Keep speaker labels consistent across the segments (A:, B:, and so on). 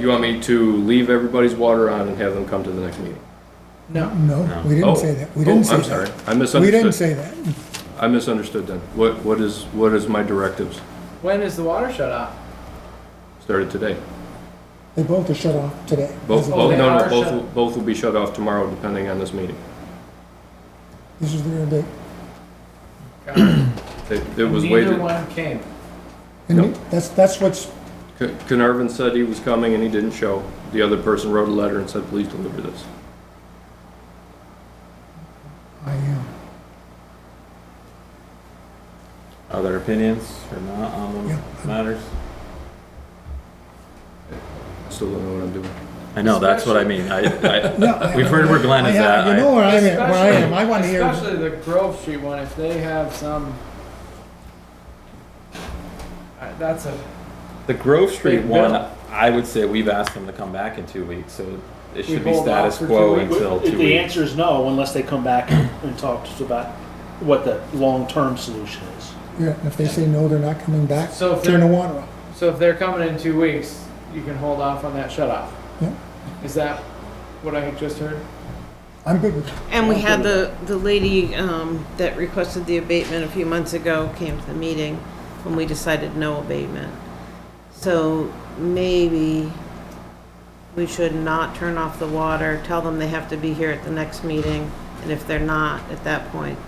A: You want me to leave everybody's water on and have them come to the next meeting?
B: No.
C: No, we
A: Oh.
C: didn't say that. We didn't say
A: Oh, I'm
C: that.
A: sorry. I
C: We didn't
A: misunderstood.
C: say that.
A: I misunderstood then. What, what is, what is my directives?
B: When is the water shut off?
A: Started today.
C: They both are shut off today.
A: Both,
B: Oh,
A: both,
B: they
A: no,
B: are
A: no, both,
B: shut-
A: will- both will be shut off tomorrow depending on this meeting.
C: This is their date.
A: It it was
B: Neither
A: waited.
B: one came.
C: And
A: No.
C: we- that's, that's what's,
A: Ca- Carnarvon said he was coming and he didn't show. The other person wrote a letter and said, please deliver this.
C: I am.
D: Other opinions or not on
C: Yeah.
D: the matters?
A: Still don't know what I'm doing.
D: I know, that's what I mean. I, I,
C: No, I-
D: We've heard where Glenn is
C: I-
D: at.
C: You know where I'm at, where I am.
B: Especially-
C: I want to hear.
B: Especially the Grove Street one, if they have some. Uh, That's a,
D: the Grove Street
B: Big
D: one,
B: bill.
D: I would say we've asked them to come back in two weeks, so it should be
B: hold off
D: status
B: for two
D: quo
B: weeks?
D: until
E: If
D: two
E: the
D: weeks.
E: answer is no, unless they come back and talk to us about what the long-term solution is.
C: Yeah, and if they say no, they're not coming back,
B: So if
C: turn the
B: they're-
C: water off.
B: so if they're coming in two weeks, you can hold off on that shut off.
C: Yeah.
B: Is that what I just heard?
C: I'm good with that.
F: And we had the, the lady um, that requested the abatement a few months ago came to the meeting when we decided no abatement. So maybe we should not turn off the water, tell them they have to be here at the next meeting, and if they're not at that point,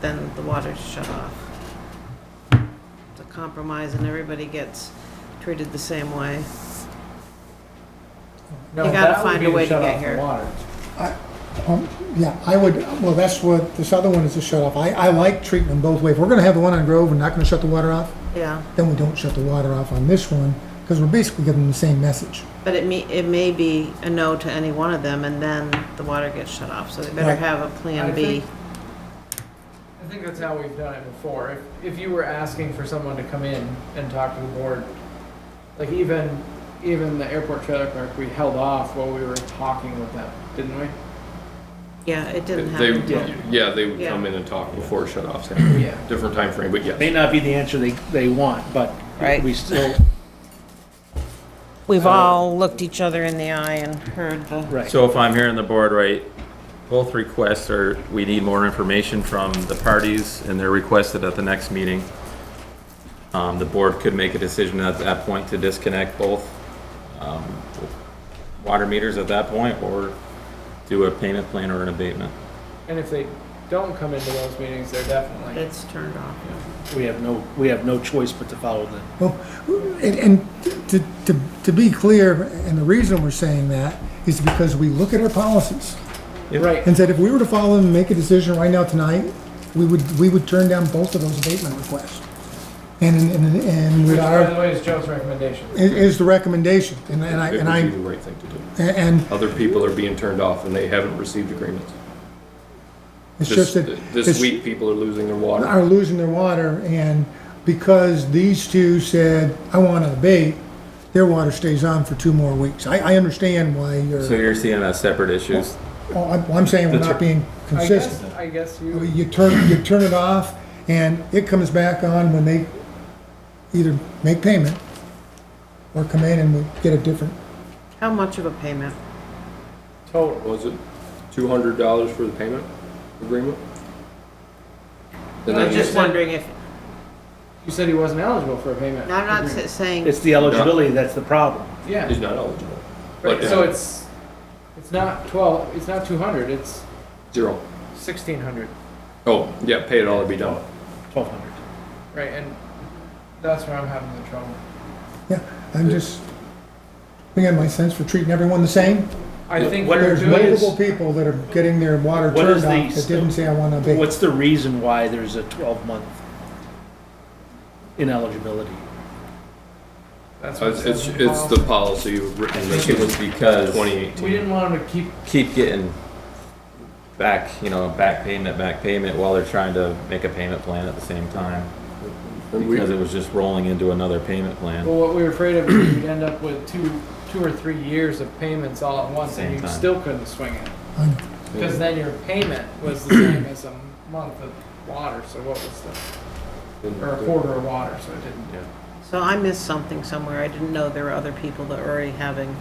F: then the water's shut off. It's a compromise and everybody gets treated the same way.
B: No,
F: You gotta
B: that would
F: find
B: be
F: a way to
B: shut
F: get
B: off the
F: here.
B: water.
C: Um, Yeah, I would, well, that's what, this other one is a shut off. I, I like treating them both ways. If we're going to have the one on Grove and not going to shut the water off,
F: Yeah,
C: then we don't shut the water off on this one, because we're basically giving them the same message.
F: but it may, it may be a no to any one of them and then the water gets shut off, so they better
C: Right.
F: have a
B: I
F: plan B.
B: think- I think that's how we've done it before. If, if you were asking for someone to come in and talk to the board, like even, even the airport trailer park, we held off while we were talking with them, didn't we?
F: Yeah, it didn't
A: They,
F: happen.
B: Yeah.
A: yeah, they would
F: Yeah.
A: come in and talk before shut-offs happened.
B: Yeah.
A: Different time frame, but yes.
E: May not be the answer they, they want, but
F: Right.
E: we still,
F: We've all looked each other in the eye and heard the,
E: right.
D: So if I'm hearing the board right, both requests are, we need more information from the parties and they're requested at the next meeting. Um, the board could make a decision at that point to disconnect both, um, water meters at that point or do a payment plan or an abatement.
B: And if they don't come into those meetings, they're definitely,
F: it's turned off.
E: We have no, we have no choice but to follow the,
C: Well, and, and to, to, to be clear, and the reason we're saying that is because we look at our policies
D: Yeah.
B: right,
C: and said if we were to follow them and make a decision right now tonight, we would, we would turn down both of those abatement requests. And, and, and
B: which
C: with
B: by
C: our,
B: the way is Joe's recommendation.
C: i- is the recommendation, and I,
A: It
C: and I,
A: would be the right thing to do.
C: and
A: Other people are being turned off and they haven't received agreements.
C: it's
A: This,
C: just that.
A: this
C: it's-
A: week, people are losing their water.
C: are losing their water, and because these two said, I want to abate, their water stays on for two more weeks. I, I understand why
D: So
C: you're,
D: you're seeing that separate issues.
C: oh, I'm, I'm saying we're not being
B: I guess,
C: consistent.
B: I guess you,
C: You turn, you turn it off, and it comes back on when they either make payment or come in and we get a different,
F: How much of a payment?
B: total,
A: Was it two hundred dollars for the payment agreement? And
F: I'm
A: then
F: just wondering if,
B: you said he wasn't eligible for a payment.
F: no, I'm not
B: agreement.
F: s- saying,
E: it's the eligibility that's the problem.
B: Yeah,
A: He's not eligible.
B: right,
A: But
B: so
A: uh,
B: it's, it's not twelve, it's not two hundred, it's
A: zero.
B: sixteen hundred.
A: Oh, yeah, pay it all and be done.
E: Twelve hundred.
B: Right, and that's where I'm having the trouble.
C: yeah, I'm just, I got my sense for treating everyone the same.
B: I think
E: What
B: what we're
C: There's
B: doing
C: multiple
B: is,
C: people that are getting their water
E: What
C: turned
E: is
C: off
E: the-
C: that didn't say, I want to abate.
E: What's the reason why there's a twelve-month ineligibility?
B: that's what
A: It's,
B: it
A: it's,
B: says in
A: it's the policy
D: I
A: written in
D: think it was because.
A: twenty
B: policy. We
A: eighteen.
B: didn't want him to keep,
D: keep getting back, you know, back payment, back payment while they're trying to make a payment plan at the same time. Because it was just rolling into another payment
B: well,
D: plan.
B: what we were afraid of is we'd end up with two, two or three years of payments all at once and
D: Same
B: you
D: time.
B: still couldn't swing it.
C: I know.
B: Cause then your payment was the same as a month of water, so what was the, or a quarter of water, so it didn't.
F: so I missed something somewhere. I didn't know there were other people that were already having